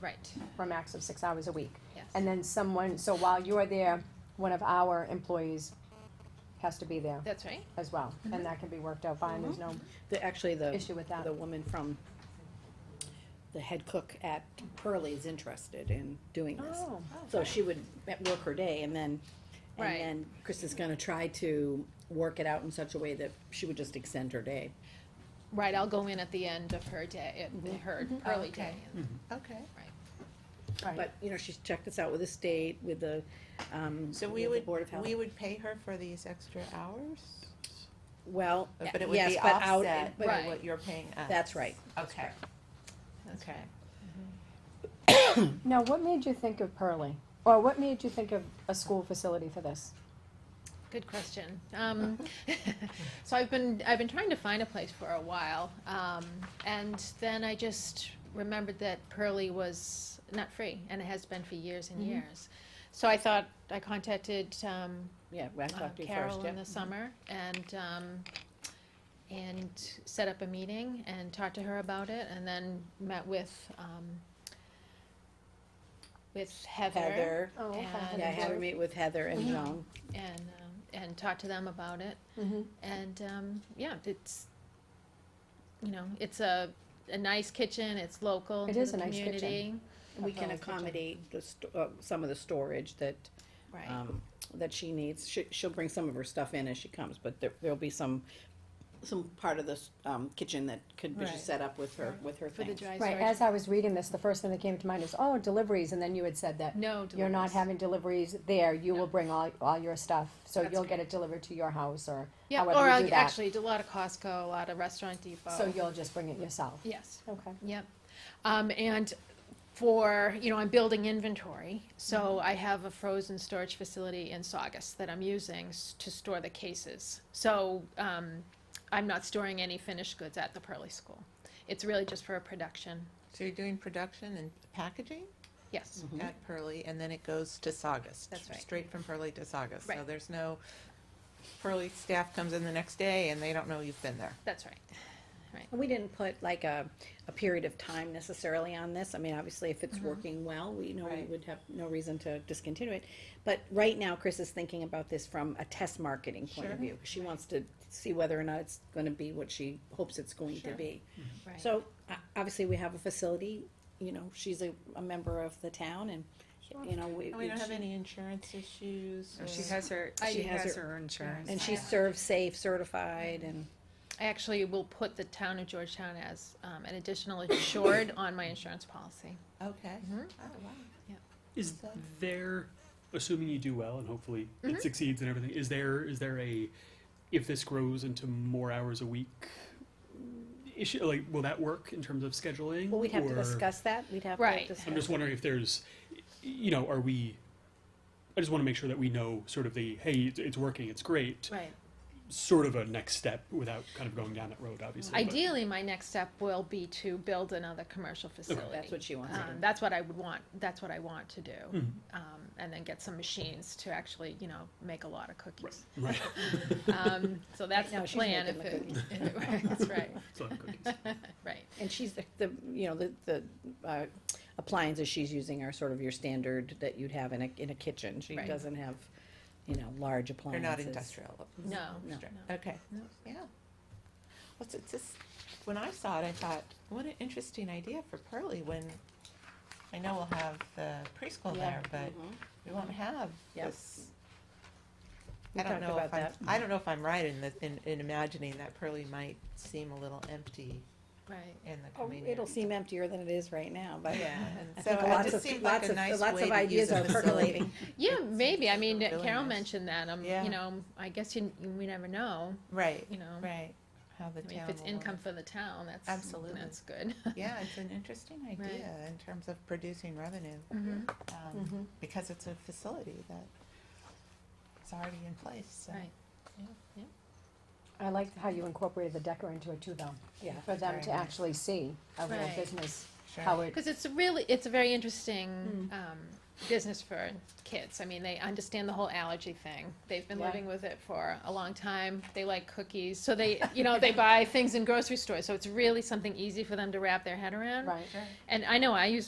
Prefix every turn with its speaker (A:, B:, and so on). A: Right,
B: for a max of six hours a week.
A: yes.
B: And then someone, so while you're there, one of our employees has to be there
A: That's right. Mm-hmm.
B: as well, and that can be worked out fine, there's no
C: The, actually, the,
B: issue with that.
C: the woman from, the head cook at Pearly is interested in doing this.
B: Oh,
C: So she would at- work her day and then,
A: Right.
C: and then Chris is gonna try to work it out in such a way that she would just extend her day.
A: Right, I'll go in at the end of her day,
B: Mm-hmm.
A: at her
B: Oh,
A: early day. Mm-hmm.
D: Okay.
B: right,
C: But, you know, she's checked this out with the state, with the, um,
D: So
C: with
D: we
C: the
D: would,
C: Board of Health.
D: we would pay her for these extra hours?
C: Well,
D: But it would
C: yes,
D: be
C: but out, in-
D: offset
C: but,
D: by
A: Right.
D: what you're paying us?
C: that's right.
D: Okay,
A: That's
D: okay.
B: now, what made you think of Pearly? Or what made you think of a school facility for this?
A: Good question. Um, so I've been I've been trying to find a place for a while, um, and then I just remembered that Pearly was not free, and it has been for years
B: Mm-hmm.
A: and years. So I thought I contacted um,
C: Yeah, well, I
A: uh,
C: talked to you first,
A: Carol
C: yeah.
A: in the
B: Mm-hmm.
A: summer and, um, and set up a meeting and talked to her about it and then met with, um, with Heather
C: Heather,
B: Oh,
A: And- Mm-hmm.
C: yeah, I had her meet with Heather and Joan.
A: and, um, and talked to them about it.
B: Mhm.
A: And, um, yeah, it's, you know, it's a, a nice kitchen, it's local
B: It
A: to the
B: is a nice kitchen.
A: community.
C: We can
B: Health kitchen.
C: accommodate the, sto- uh, some of the storage that
A: Right,
C: um, that she needs. She, she'll bring some of her stuff in as she comes, but there, there'll be some, some part of this, um, kitchen that could be
D: Right.
C: just set up with her, with her
A: for the
C: things.
A: dry
B: Right,
A: storage.
B: as I was reading this, the first thing that came to mind is, oh, deliveries, and then you had said that
A: No
B: you're not
A: deliveries.
B: having deliveries there, you will bring all, all your stuff, so
A: That's
B: you'll get it delivered to your house, or
A: Yeah,
B: however
A: or
B: you
A: I'll-
B: do that.
A: actually, a lot of Costco, a lot of Restaurant Depot.
B: So you'll just bring it yourself?
A: Yes.
B: Okay.
A: Yep. Um, and for, you know, I'm building inventory, so I have a frozen storage facility in Saugus that I'm using s- to store the cases. So, um, I'm not storing any finished goods at the Pearly School. It's really just for production,
D: So you're doing production and packaging
A: yes.
C: Mm-hmm.
D: at Pearly, and then it goes to Saugus?
A: That's right.
D: Straight from Pearly to Saugus? So
A: Right.
D: there's no, Pearly staff comes in the next day and they don't know you've been there?
A: That's right.
C: And We didn't put like a, a period of time necessarily on this. I mean, obviously, if it's working well, we know we
D: Right.
C: would have no reason to discontinue it. But right now, Chris is thinking about this from a test marketing point of
D: Sure.
C: view. She wants to see whether or not it's gonna be what she hopes it's going to
D: Sure.
C: be.
A: Right.
C: So, uh, obviously, we have a facility, you know, she's a, a member of the town and, you know, we.
D: And we don't have
C: she-
D: any insurance issues?
E: She
D: or-
E: has her,
C: I-
E: she
C: She has
E: has
C: her-
E: her insurance.
C: And she's serve safe certified and,
A: I actually will put the town of Georgetown as, um, an additional insured on my insurance policy.
D: Okay.
C: Mm-hmm.
A: Mhm.
D: Oh, wow.
F: Is
D: So-
F: there, assuming you do well and hopefully
C: Mm-hmm.
F: it succeeds and everything, is there is there a if this grows into more hours a week issue? Like, will that work in terms of scheduling?
C: well, we'd have to
F: or-
C: discuss that, we'd have to
A: Right.
C: discuss.
F: I'm just wondering if there's, you know, are we? I just want to make sure that we know sort of the hey, it's, it's working, it's great,
A: Right.
F: sort of a next step without kind of going down that road, obviously. but-
A: Ideally, my next step will be to build another commercial facility.
C: That's what she wants to
A: Um,
C: do.
A: that's what I would want, that's what I want to do.
F: Hmm,
A: Um, and then get some machines to actually, you know, make a lot of cookies.
F: Right.
A: Um, so that's
C: now
A: the
C: she's
A: plan if
C: making the
A: it, if it works, right,
F: So, cookies.
A: right.
C: And she's the, the, you know, the, the, uh, appliances she's using are sort of your standard that you'd have in a, in a kitchen. She
A: Right.
C: doesn't have, you know, large
D: They're
C: appliances.
D: not industrial.
A: No, no.
D: Okay. Yeah. Well, it's just, when I saw it, I thought, what an interesting idea for Pearly when, I know we'll have the preschool
C: Yeah. Mm-hmm.
D: there, but we won't have
C: Yep.
D: this.
C: We
D: I don't
C: talked
D: know
C: about
D: if I'm,
C: that.
D: I don't know if I'm right in the, in, in imagining that Pearly might seem a little empty
A: right.
D: in the
C: Oh,
D: coming year.
C: it'll seem emptier than it is right now, but.
D: Yeah,
C: I
D: and so
C: think
D: it
C: lots
D: just
C: of,
D: seemed like
C: lots
D: a
C: of,
D: nice
C: lots
D: way
C: of
D: to use
C: ideas
D: a
C: are
D: facility.
C: percolating.
A: Yeah, maybe, I mean,
D: Really
A: Carol
D: nice.
A: mentioned that, um,
D: Yeah.
A: you know, I guess you, we never know,
D: Right,
A: you
C: Mm-hmm.
A: know.
D: right, how the
A: I mean,
D: town
A: if it's
D: will want
A: income for the town, that's,
D: Absolutely.
A: that's good.
D: it. Yeah, it's an interesting idea in terms of producing revenue.
A: Mhm,
C: Mm-hmm.
D: um,
B: Mm-hmm.
D: because it's a facility that's already in place. So.
A: Right,
B: I liked how you incorporated the Decker into it too, though,
C: Yeah.
B: for them
D: Very
B: to
D: nice.
B: actually see a real
A: Right.
B: business,
D: Sure.
B: how it,
A: because it's a really, it's a very
B: Hmm.
A: interesting, um, business for kids. I mean, they understand the whole allergy thing. They've been
B: Yeah.
A: living with it for a long time. They like cookies, so they, you know, they buy things in grocery stores. So it's really something easy for them to wrap their head around.
B: right?
D: Sure.
A: And I know I use